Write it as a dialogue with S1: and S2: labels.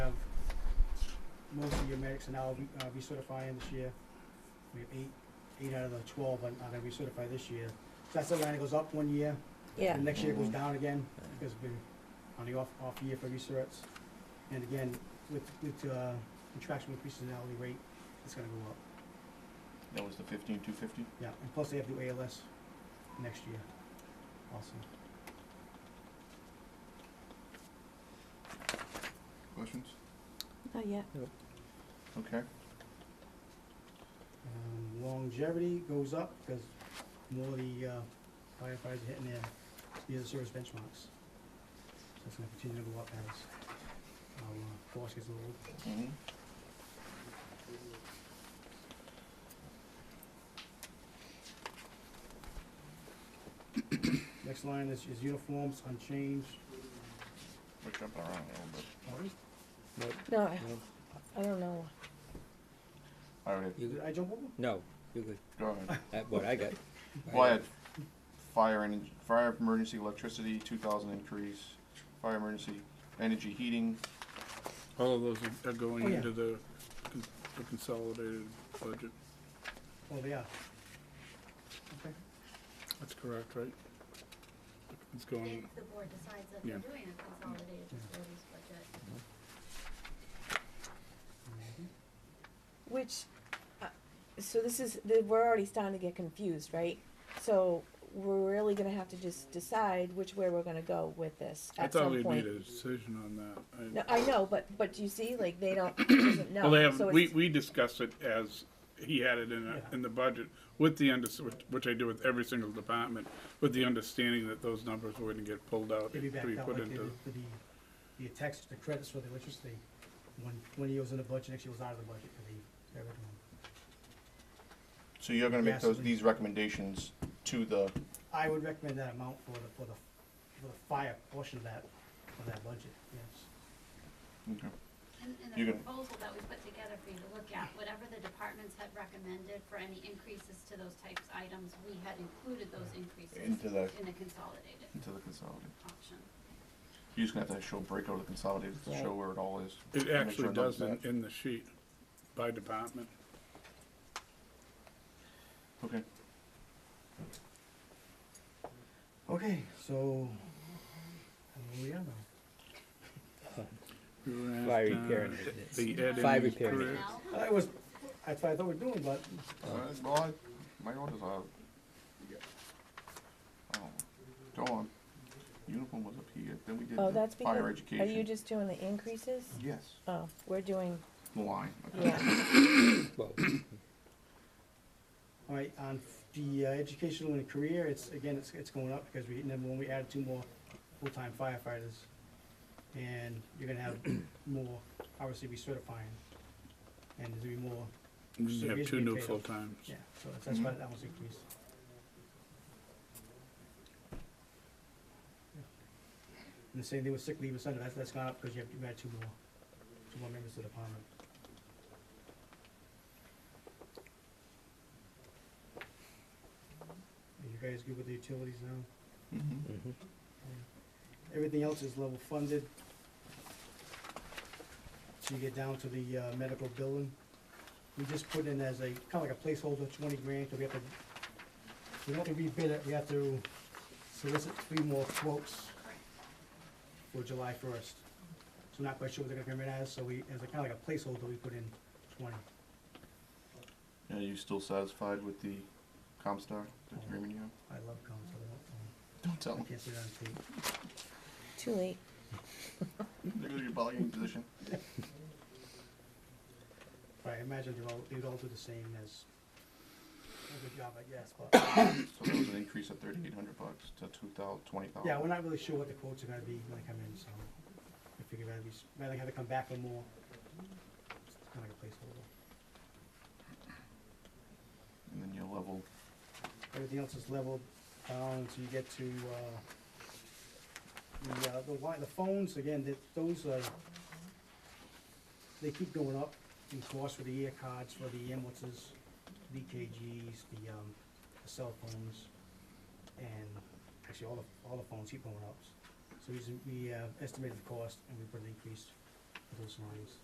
S1: most of your medics are now uh, recertifying this year. We have eight, eight out of the twelve are are gonna recertify this year. So that's the line that goes up one year,
S2: Yeah.
S1: and next year it goes down again,
S3: Yeah.
S1: because we're on the off, off year for recerts. And again, with, with, uh, contractual increases in hourly rate, it's gonna go up.
S4: That was the fifteen, two fifty?
S1: Yeah, and plus they have to do ALS next year also.
S4: Questions?
S2: Not yet.
S4: Okay.
S1: Um, longevity goes up because more of the uh, firefighters are hitting their years of service benchmarks. So it's gonna continue to go up as our uh, force gets old.
S4: Mhm.
S1: Next line is, is uniforms unchanged.
S4: We're jumping around a little bit.
S3: Nope,
S2: No, I,
S3: no,
S2: I don't know.
S4: All right,
S3: you
S1: Did
S3: good?
S1: I jump over?
S3: No, you're good.
S4: go ahead.
S3: That, what I got. I
S4: Well, I
S3: got-
S4: had fire and, fire emergency electricity, two thousand increase, fire emergency energy heating,
S5: All of those are- are
S1: Oh,
S5: going
S1: yeah.
S5: into the con- the consolidated budget.
S1: Oh, they are. Okay.
S5: That's correct, right? It's going,
S6: If the board decides that they're
S5: Yeah.
S6: doing a consolidated facilities budget.
S2: Which, uh, so this is, the- we're already starting to get confused, right? So we're really gonna have to just decide which way we're gonna go with this
S5: I
S2: at
S5: thought
S2: some
S5: we made
S2: point.
S5: a decision on that.
S2: No,
S5: I-
S2: I know, but, but you see, like, they don't, he doesn't know.
S5: Well, they have,
S2: So
S5: we,
S2: it's-
S5: we discussed it as, he had it in, a-
S1: Yeah.
S5: in the budget with the under, which- which I do with every single department, with the understanding that those numbers were gonna get pulled out
S1: They'd be
S5: and to
S1: backed
S5: be
S1: out
S5: put
S1: like they
S5: into.
S1: did for the, the tax, the credits for the electricity. One, one year was in the budget, next year was out of the budget for the, everyone.
S4: so you're gonna make
S1: Yes,
S4: those,
S1: we-
S4: these recommendations to the,
S1: I would recommend that amount for the, for the, for the fire portion of that, of that budget, yes.
S4: okay.
S6: And, and
S4: You
S6: the
S4: can-
S6: proposal that we put together for you to look at, whatever the departments had recommended for any increases to those types items, we had included those increases
S4: Into the-
S6: in the consolidated
S4: into the consolidated.
S6: option.
S4: You're just gonna have to show breakout of the consolidated to show
S2: Right.
S4: where it all is. Make
S5: It
S4: sure
S5: actually
S4: none's
S5: does in,
S4: back.
S5: in the sheet by department.
S4: Okay,
S1: Okay, so, where we are now?
S5: We were asked,
S3: Fire
S5: uh,
S3: repair and
S5: The
S3: maintenance.
S5: Ed
S3: Fire
S5: and his
S3: repair and
S5: career.
S6: Now,
S1: I was, that's what I thought we were doing, but
S4: Uh, well, I- my orders are. Oh, Go on, uniform was up here, then we did
S2: Oh,
S4: the
S2: that's
S4: fire
S2: because,
S4: education.
S2: are you just doing the increases?
S4: Yes,
S2: Oh, we're doing,
S4: the line, okay.
S2: yeah,
S3: Well,
S1: All right, on the uh, educational and career, it's, again, it's, it's going up because we, number one, we added two more full-time firefighters. And you're gonna have more, obviously, recertifying. And there's gonna be more,
S5: We have two
S1: Reasonably
S5: new
S1: paid off.
S5: full-times.
S1: yeah, so that's- that's why that was increased. And the same thing with sick leave and Sunday, that's, that's gone up because you have, you added two more, two more members to the department. Are you guys good with the utilities now?
S4: Mhm.
S3: mhm.
S1: Everything else is level funded. So you get down to the uh, medical billing. We just put in as a, kind of like a placeholder, twenty grand, so we have to, we don't have to rebid it, we have to solicit three more quotes for July first. So not quite sure what they're gonna come in as, so we, as a kind of like a placeholder, we put in twenty.
S4: Are you still satisfied with the Comstar agreement you have?
S1: I love comms, I
S4: Don't tell
S1: don't, I um,
S4: them.
S1: can't sit on tape.
S2: too late.
S4: They're gonna be bargaining position.
S1: Right, I imagine they'd all, they'd all do the same as, a good job, I guess, but,
S4: So that was an increase of thirty-eight hundred bucks to two thou, twenty thousand.
S1: yeah, we're not really sure what the quotes are gonna be when they come in, so. I figure rather be, s- rather have to come back for more. It's kinda like a placeholder.
S4: And then your level,
S1: Everything else is leveled down, so you get to, uh, the, uh, the wi- the phones, again, that, those are, they keep going up in cost for the ear cards, for the ambulances, BKGs, the, um, the cell phones, and actually all the, all the phones keep going up. So we, s- we uh, estimated the cost and we put an increase for those lines.